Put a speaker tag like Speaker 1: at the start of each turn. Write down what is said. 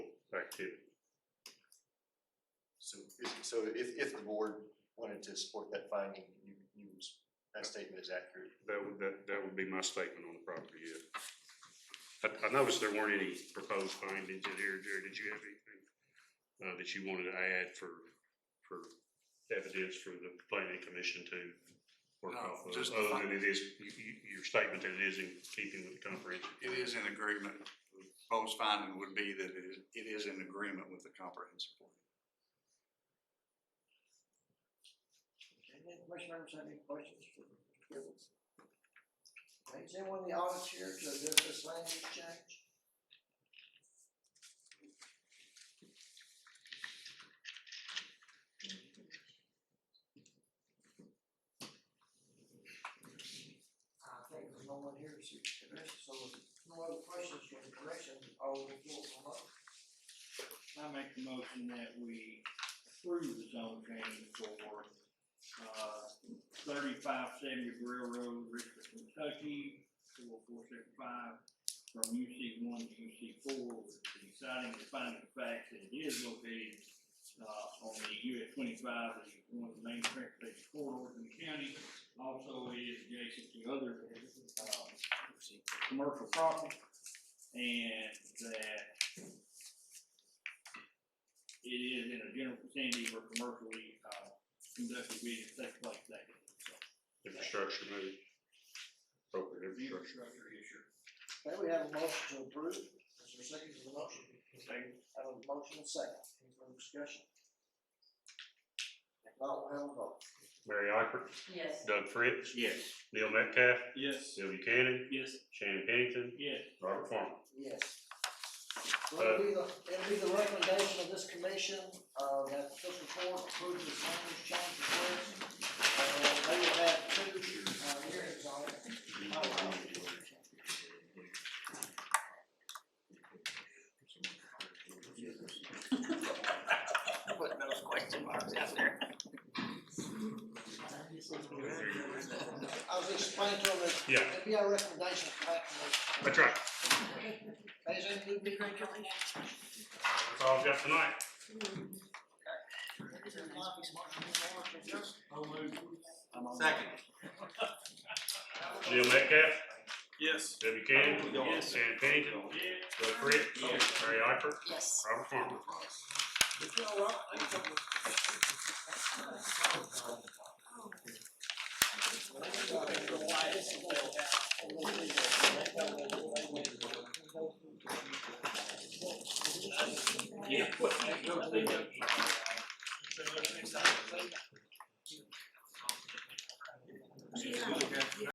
Speaker 1: activity.
Speaker 2: So if, so if, if the board wanted to support that finding, you, you, that statement is accurate.
Speaker 1: That would, that, that would be my statement on the property, yeah. I, I noticed there weren't any proposed findings in here, Jerry, did you have anything, uh, that you wanted to add for, for evidence for the planning commission to work
Speaker 3: No,
Speaker 1: off of?
Speaker 3: just the
Speaker 1: Other
Speaker 3: fi-
Speaker 1: than it is, you, you, your statement that it is in keeping with the comprehensive.
Speaker 3: It is in agreement, Bo's finding would be that it is, it is in agreement with the comprehensive plan.
Speaker 4: Any commissioners have any questions for Gilbert? Okay, Is anyone in the audience here to address this language change? I think there's no one here to see the commission, so if no other questions from the commission, I'll report from up.
Speaker 5: I make the motion that we approve the zone change for, uh, thirty-five seventy Railroad, Richmond, Kentucky, four four six five, from UC one to UC four, deciding to find the fact that it is located, uh, on the US twenty-five, which is one of the main transportation corridors in the county. Also, it is adjacent to other, um, commercial property, and that it is in a general vicinity where commercially, uh, conducted business takes place that day. So,
Speaker 1: Infrastructure, maybe. Appropriate infrastructure.
Speaker 5: Infrastructure issue.
Speaker 4: Okay, we have a motion to approve, is there a second to the motion? Second. I have a motion and second, any further discussion? If not, we'll have a vote.
Speaker 1: Mary Iker,
Speaker 6: Yes.
Speaker 1: Doug Fritz,
Speaker 5: Yes.
Speaker 1: Neil Metcalf,
Speaker 5: Yes.
Speaker 1: Bill Buchanan,
Speaker 5: Yes.
Speaker 1: Shannon Pennington,
Speaker 5: Yes.
Speaker 1: Robert Farmer.
Speaker 4: Yes. Well, It'll be the, it'll be the recommendation of this commission, uh, that this report approves the language change request. Uh, they will have two, uh, hearings on it.
Speaker 6: Put those question marks out there.
Speaker 4: I was explaining to them that
Speaker 1: Yeah,
Speaker 4: it'd be our recommendation for that commission.
Speaker 1: that's right.
Speaker 4: Is there anything to drink on
Speaker 1: That's all I've got tonight.
Speaker 3: Second.
Speaker 1: Neil Metcalf,
Speaker 3: Yes.
Speaker 1: Bill Buchanan,
Speaker 3: Yes.
Speaker 1: Shannon Pennington,
Speaker 5: Yeah.
Speaker 1: Doug Fritz, Mary Iker,
Speaker 6: Yes.
Speaker 1: Robert Farmer.